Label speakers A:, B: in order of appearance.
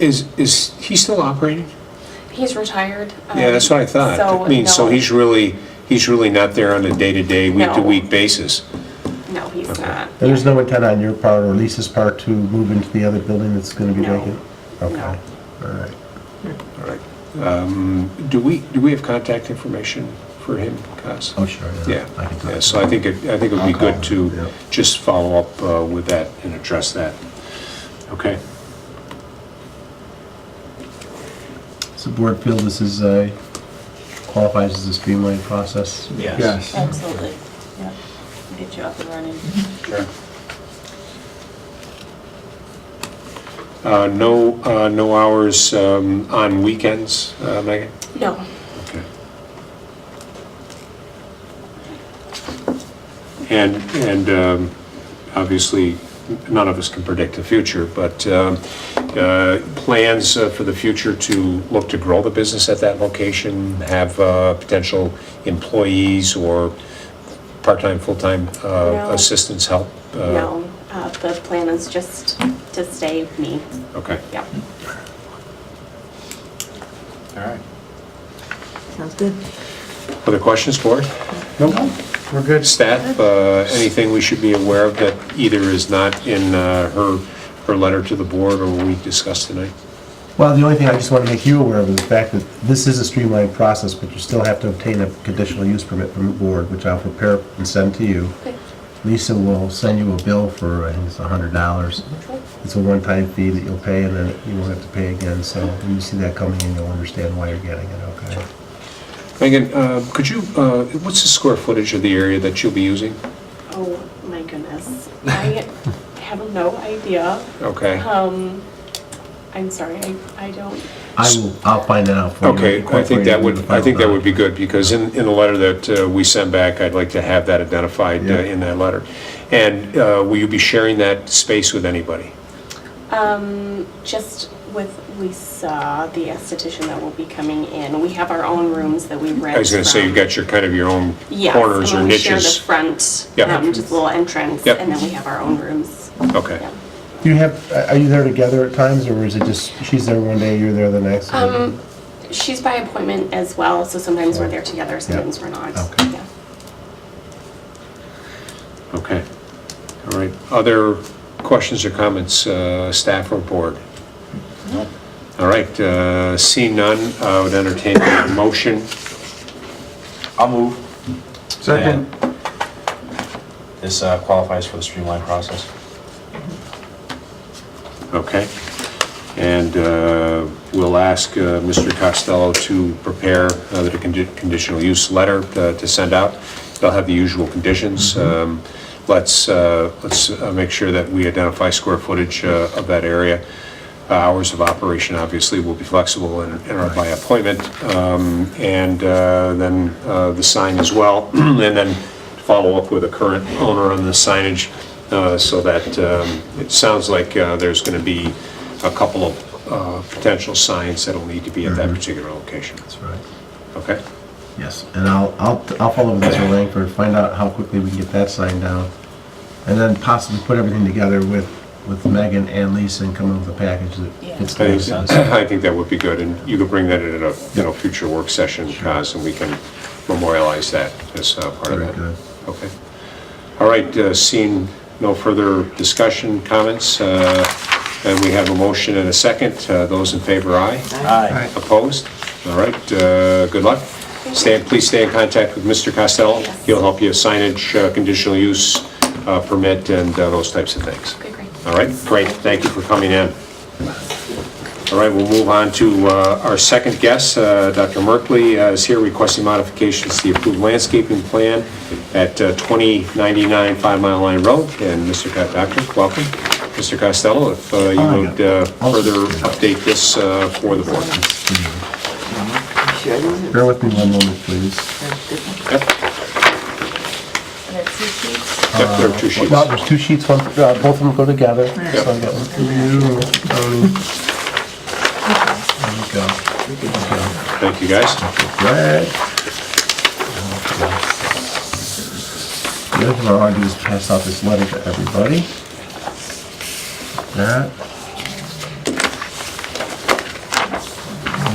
A: Is, is he still operating?
B: He's retired. um,
A: Yeah, that's what I thought.
B: So,
A: I mean, so
B: no.
A: he's really, he's really not there on a day-to-day, week-to-week basis.
B: No, he's not.
C: And there's no intent on your part or Lisa's part to move into the other building that's going to be
B: No.
C: vacant? Okay, all right.
A: All right. Um, Do we, do we have contact information for him, Cos?
C: Oh, sure,
A: Yeah,
C: yeah. I can
A: yeah,
C: talk
A: so
C: to
A: I
C: her.
A: think, it I think it would be
C: I'll call
A: good
C: him,
A: to
C: yeah.
A: just follow up uh, with that and address that. Okay?
C: Does the board feel this is a, qualifies as a streamlined process?
D: Yes.
E: Yes.
B: Absolutely. Yep. Get you up and running.
A: Sure. Uh, No, uh, no hours um, on weekends, uh, Megan?
B: No.
A: Okay. And, and um, obviously, none of us can predict the future, but um, uh, plans uh, for the future to look to grow the business at that location, have uh, potential employees or part-time, full-time uh,
B: No.
A: assistants help? Uh,
B: No. Uh, The plan is just to stay me.
A: Okay.
B: Yep.
D: All right.
E: Sounds good.
A: Other questions, board?
D: We're good.
A: Staff, uh, anything we should be aware of that either is not in uh, her, her letter to the board or we discussed tonight?
C: Well, the only thing I just want to make you aware of is the fact that this is a streamlined process, but you still have to obtain a conditional use permit from the board, which I'll prepare and send to you.
B: Okay.
C: Lisa will send you a bill for, I think it's $100. It's a one-time fee that you'll pay, and then you won't have to pay again, so when you see that coming in, you'll understand why you're getting it, okay?
A: Megan, uh, could you, uh, what's the square footage of the area that you'll be using?
B: Oh, my goodness. I have no idea.
A: Okay.
B: Um, I'm sorry, I I don't.
C: I will, I'll find that out for you.
A: Okay, I think that would, I think that would be good, because in, in the letter that uh, we send back, I'd like to have that identified uh,
C: Yeah.
A: in that letter. And uh, will you be sharing that space with anybody?
B: Um, just with Lisa, the esthetician that will be coming in, we have our own rooms that we rent.
A: I was gonna say, you've
B: from-
A: got your, kind of your own
B: Yes,
A: corners
B: and
A: or
B: we share the
A: niches.
B: front,
A: Yeah.
B: um, just a little entrance,
A: Yep.
B: and then we have our own rooms.
A: Okay,
B: Yeah.
C: Do you have, are you there together at times, or is it just, she's there one day, you're there the next?
B: Um,
A: Mm-hmm.
B: she's by appointment as well, so sometimes we're there together, sometimes we're not.
C: Okay.
B: Yeah.
A: okay. All right, other questions or comments, uh, staff or board? All right, uh, seeing none, I would entertain a motion.
D: I'll move.
E: Second.
D: This uh, qualifies for the streamlined process.
A: Okay. And uh, we'll ask uh, Mr. Costello to prepare uh, the condi- conditional use letter uh, to to send out. They'll have the usual conditions. Um, Let's, uh, let's uh, make sure that we identify square footage uh, of that area. Uh, Hours of operation, obviously, will be flexible and and are by appointment. Um, And uh, then uh, the sign as well. And then follow up with the current owner on the signage uh, so that, um, it sounds like uh, there's going to be a couple of uh, potential signs that'll need to be at that particular location.
C: That's right.
A: Okay?
C: Yes, and I'll, I'll, I'll follow with Mr. Langford, find out how quickly we can get that signed down, and then possibly put everything together with, with Megan and Lisa and come up with a package that fits
A: I
C: the
A: think- I think that would be good, and you could bring that in at a, you know, future work session, Kaz, and we can memorialize that as uh, part of
C: Very
A: that.
C: good.
A: Okay. All right, uh, seeing no further discussion, comments, uh, and we have a motion and a second. Uh, Those in favor, aye.
D: Aye.
A: Opposed? All right, uh, good luck. Stay, please stay in contact with Mr. Costello.
B: Yes.
A: He'll help you signage, uh, conditional use uh, permit, and uh, those types of things.
B: Okay, great.
A: All right, great, thank you for coming in. All right, we'll move on to uh, our second guest, Uh, Dr. Merkley uh, is here requesting modifications to the approved landscaping plan at uh, 2099 Five Mile Line Road, and Mr. Co- Doctor, welcome. Mr. Costello, if uh, you
C: Oh, yeah.
A: would uh, further update this uh, for the board.
C: Bear with me one moment, please.
A: Yep, yep, there are two sheets.
C: Uh, Well, there's two sheets, one, uh, both of them go together, so I got one for you, one for Tony. There we go.
A: Thank you, guys.
C: Red. The other thing I want to do is pass out this letter to everybody. That.